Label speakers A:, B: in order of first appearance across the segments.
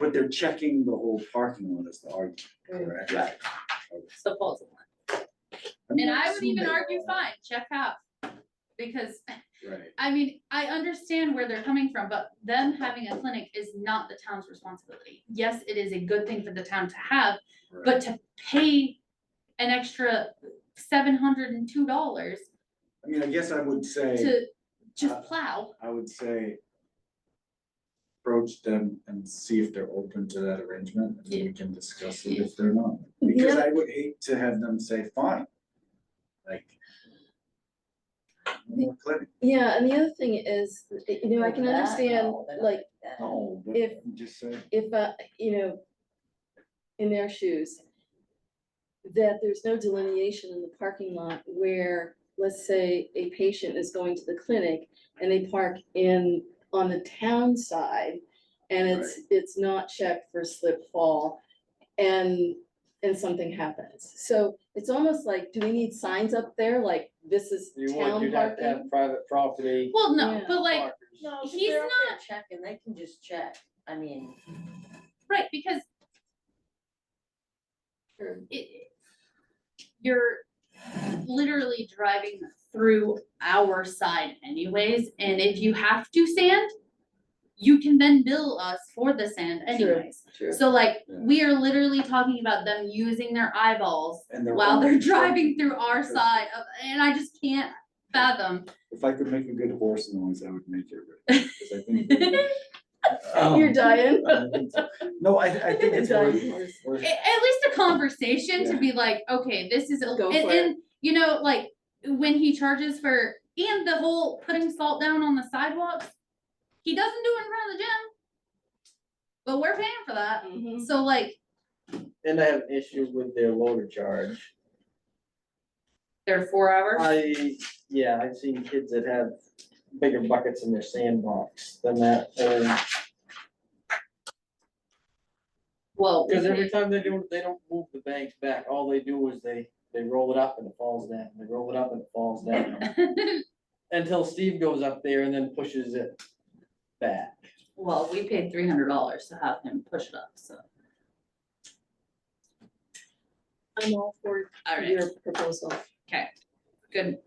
A: they're checking the whole parking lot is the argument, correct?
B: Right. supposedly.
A: I'm
B: And
A: not
B: I would
A: assuming
B: even
A: they
B: argue,
A: are.
B: fine, check out. Because,
A: Right,
B: I mean, I understand where they're coming from, but them having a clinic is not the town's responsibility. Yes, it is a good thing for the town to have,
A: right.
B: but to pay an extra seven hundred and two dollars
A: I mean, I guess I would say,
B: to just plow.
A: I would say approach them and see if they're open to that arrangement, and then we can discuss it if they're not. Because
C: Yeah.
A: I would hate to have them say, fine, like no more clinic,
C: Yeah, and the other thing is, you know, I can understand, like,
A: no, but
C: If-
A: I'm just say,
C: if, uh, you know, in their shoes, that there's no delineation in the parking lot where, let's say, a patient is going to the clinic and they park in, on the town side, and it's, it's not checked for slip fall, and, and something happens. So it's almost like, do we need signs up there, like, this is
D: You want,
C: town
D: you'd have to
C: parking?
D: have private property.
B: Well, no,
C: Yeah.
B: but like,
D: markers.
E: No, 'cause
B: He's
E: they're up there Checking, they can just check, I mean.
B: right, because
C: Or-
B: it, you're literally driving through our side anyways, and if you have to sand, you can then bill us for the sand anyways.
C: True.
B: So like,
A: Yeah.
B: we are literally talking about them using their eyeballs
A: and they're.
B: while they're
A: only-
B: driving through our
A: Because
B: side of, and I just can't fathom.
A: If I could make a good horse noise, I would make it, right, 'cause I think. Um,
C: You're dying.
A: I don't think so. No, I, I think it's worth,
C: Dying horse.
A: worth-
B: a- at least a conversation to
A: Yeah.
B: be like, okay, this is, a-
C: Go
B: and,
C: for it.
B: and, you know, like, when he charges for, and the whole putting salt down on the sidewalks. He doesn't do it in front of the gym. But we're paying for that,
C: Mhm.
B: so like,
D: And I have an issue with their loader charge.
B: they're four
C: Uh,
B: hours,
D: I, yeah, I've seen kids that have bigger buckets in their sandbox than that, or,
B: well,
D: because every time they do, it, they don't move the banks back, all they do is they, they roll it up and it falls down, they roll it up and it falls down. Until Steve goes up there and then pushes it back.
B: well, we paid three hundred dollars to have him push it up, so,
C: I'm all for
B: alright,
C: your proposal.
B: good.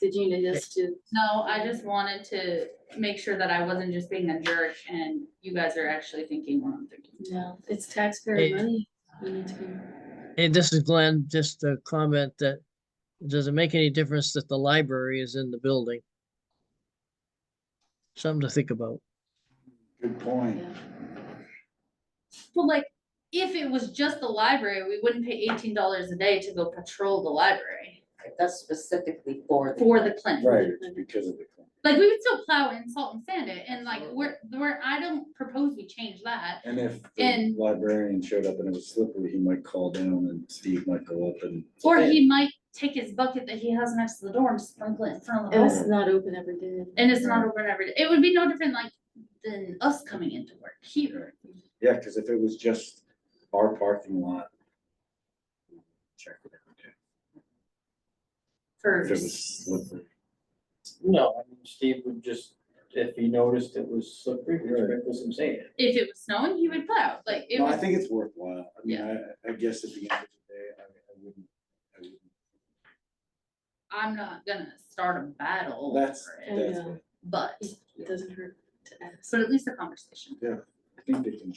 C: Did you need us to?
B: No, I just wanted to make sure that I wasn't just being a jerk and you guys are actually thinking what I'm thinking.
C: No, it's taxpayer
F: Hey.
C: money. We need to be-
F: Hey, this is Glenn, just a comment that, does it make any difference that the library is in the building? Something to think about.
A: good point.
B: Well, like, if it was just the library, we wouldn't pay eighteen dollars a day to go patrol the library
E: That's specifically for.
B: for the clinic.
A: Right, it's because of the. clinic.
B: Like, we would still plow and salt and sand it, and like, we're, we're, I don't propose we change that.
A: And if the
B: And-
A: librarian showed up and it was slippery, he might call down and Steve might go up and.
B: Or he might take his bucket that he has next to the door and sprinkle it in front of the
C: And
B: hall,
C: it's not open every day.
B: and it's not over every day. It would be no different like than us coming into work here.
A: Yeah, cause if it was just our parking lot. Check it out. okay.
B: For,
A: If it was slippery.
D: No, I mean, Steve would just, if he noticed it was slippery, he'd sprinkle some sand.
B: if it was snowing, he would plow, like, it
A: No, I
B: was,
A: think it's worthwhile. I mean, I, I guess at the end of the day, I, I wouldn't, I wouldn't.
B: I'm not gonna start a battle over
A: That's,
B: it,
A: that's,
C: Yeah.
A: it.
B: but,
C: It doesn't hurt to ask.
B: but at least a conversation.
A: I think they can.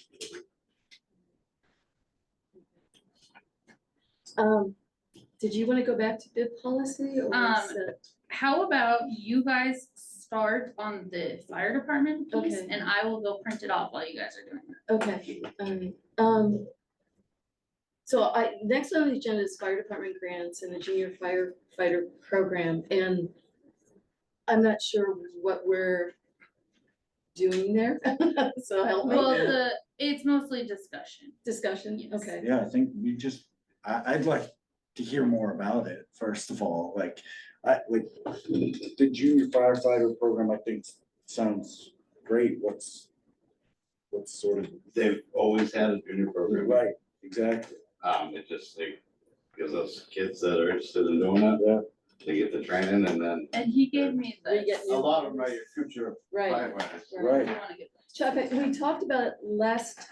C: Um, did you wanna go back to bid policy or
B: Um,
C: is that-
B: How about you guys start on the fire department piece
C: Okay.
B: and I will go print it off while you guys are doing it.
C: okay, alright, um. So I, next on the agenda is fire department grants and the junior firefighter program and I'm not sure what we're doing there, so help
B: Well,
C: me.
B: the, it's mostly discussion.
C: Discussion,
B: Yes.
C: okay.
A: Yeah, I think we just, I, I'd like to hear more about it, first of all, like, I, like, the junior firefighter program, I think, sounds great, what's, what's sort of,
G: They've always had a junior program.
A: right, exactly,
G: Um, it just, like gives us kids that are interested in doing it,
A: yeah,
G: they get the training and then.
B: And he gave me
C: We
B: this.
C: get
G: A
C: new-
G: lot of them are your future
C: Right,
G: firefighters.
A: right.
B: You wanna give-
C: Chuck, I- we talked about it last